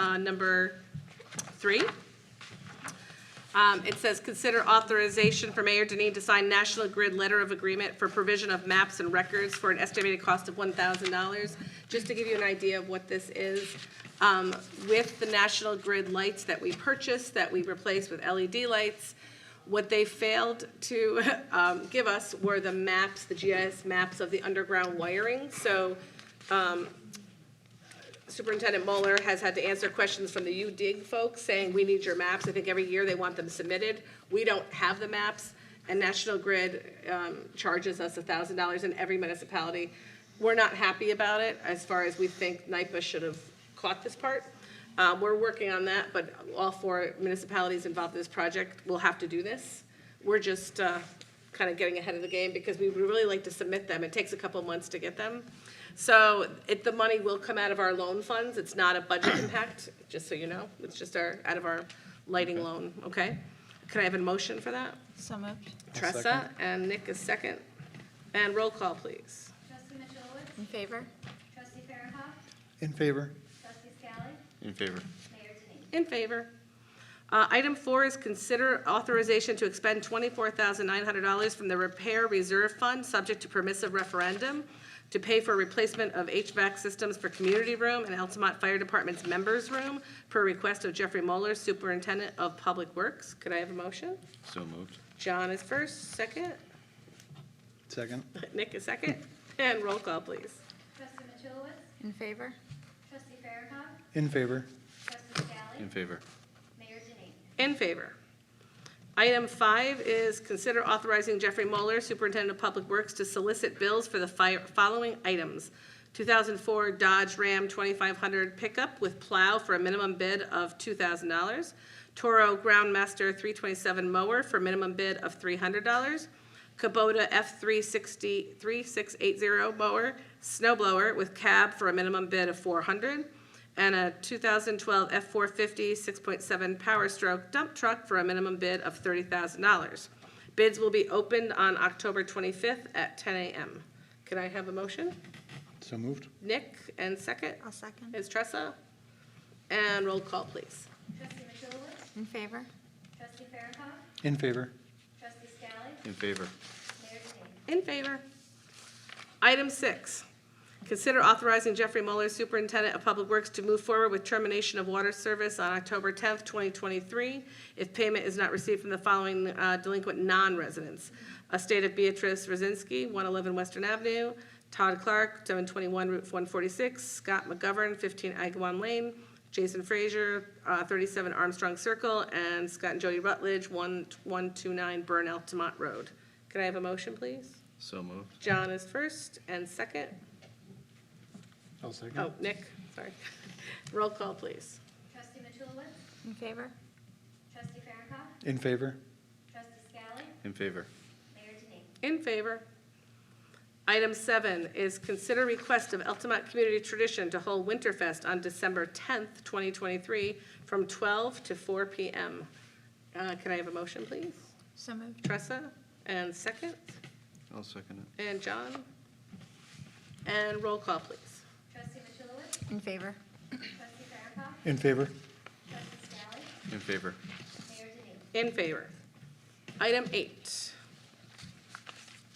uh, number three. Um, It says, "Consider authorization for Mayor Denine to sign National Grid Letter of Agreement for provision of maps and records for an estimated cost of $1,000." Just to give you an idea of what this is, um, with the National Grid lights that we purchased, that we replaced with LED lights, what they failed to um, give us were the maps, the GIS maps of the underground wiring. So Superintendent Mueller has had to answer questions from the UDIG folks saying, we need your maps. I think every year they want them submitted. We don't have the maps. And National Grid um, charges us thousand dollars in every municipality. We're not happy about it as far as we think NIPA should have caught this part. Uh, We're working on that, but all four municipalities involved in this project will have to do this. We're just kind of getting ahead of the game because we would really like to submit them. It takes a couple months to get them. So it, the money will come out of our loan funds. It's not a budget impact, just so you know. It's just our, out of our lighting loan, okay? Can I have a motion for that? So moved. Tressa and Nick is second. And roll call, please. Trustee Mitchellwitz, In favor? trustee Farah, In favor? trustee Scally, In favor. mayor Denine. In favor. Uh, Item four is consider authorization to expend $24,900 from the Repair Reserve Fund, subject to permissive referendum, to pay for replacement of HVAC systems for Community Room and Altamont Fire Department's Members Room, per request of Jeffrey Moeller, Superintendent of Public Works. Could I have a motion? So moved. John is first, second. Second? Nick is second. And roll call, please. Trustee Mitchellwitz, In favor? trustee Farah, In favor? trustee Scally, In favor. mayor Denine. In favor. Item five is consider authorizing Jeffrey Mueller, Superintendent of Public Works, to solicit bills for the fi- following items. 2004 Dodge Ram 2500 pickup with plow for a minimum bid of $2,000. Toro Groundmaster 327 mower for minimum bid of $300. Kubota F360, 3680 mower, snow blower with cab for a minimum bid of 400, and a 2012 F450 6.7 Power Stroke dump truck for a minimum bid of $30,000. Bids will be opened on October 25th at 10 a.m. Can I have a motion? So moved? Nick, and second I'll second. is Tressa. And roll call, please. Trustee Mitchellwitz, In favor? trustee Farah, In favor? trustee Scally, In favor. mayor Denine. In favor. Item six, consider authorizing Jeffrey Mueller, Superintendent of Public Works, to move forward with termination of water service on October tenth, twenty twenty-three, if payment is not received from the following uh, delinquent non-residents. Estate of Beatrice Rosinski, one eleven Western Avenue, Todd Clark, seven twenty-one Route one forty-six, Scott McGovern, fifteen Agawam Lane, Jason Frazier, uh, thirty-seven Armstrong Circle, and Scott and Jody Rutledge, one, one two nine Burn Altamont Road. Could I have a motion, please? So moved. John is first and second. I'll second. Oh, Nick, sorry. Roll call, please. Trustee Mitchellwitz, In favor? trustee Farah, In favor? trustee Scally, In favor. mayor Denine. In favor. Item seven is consider request of Altamont Community Tradition to hold Winterfest on December 10th, 2023, from 12 to 4 p.m. Uh, Can I have a motion, please? So moved. Tressa, and second, I'll second it. and John? And roll call, please. Trustee Mitchellwitz, In favor? trustee Farah, In favor? trustee Scally, In favor. mayor Denine. In favor. Item eight.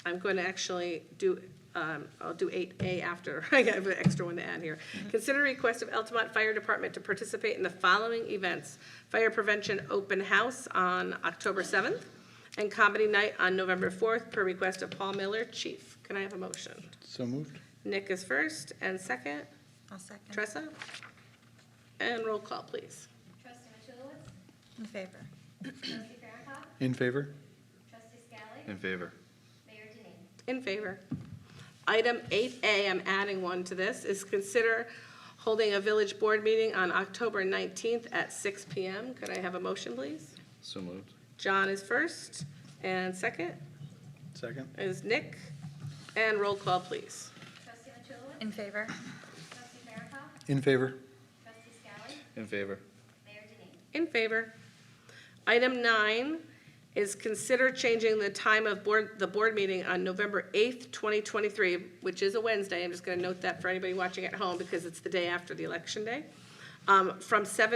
I'm going to actually do, um, I'll do eight A after. I have an extra one to add here. Consider request of Altamont Fire Department to participate in the following events. Fire Prevention Open House on October seventh and Comedy Night on November fourth per request of Paul Miller, Chief. Can I have a motion? So moved? Nick is first and second. I'll second. Tressa? And roll call, please. Trustee Mitchellwitz, In favor? trustee Farah, In favor? trustee Scally, In favor. mayor Denine. In favor. Item 8A, I'm adding one to this, is consider holding a village board meeting on October 19th at 6 PM. Could I have a motion, please? So moved. John is first, and second Second? is Nick. And roll call, please. Trustee Mitchellwitz, In favor? trustee Farah, In favor? trustee Scally, In favor. mayor Denine. In favor. Item nine is consider changing the time of board, the board meeting on November 8th, 2023, which is a Wednesday. I'm just going to note that for anybody watching at home because it's the day after the election day. um, from seven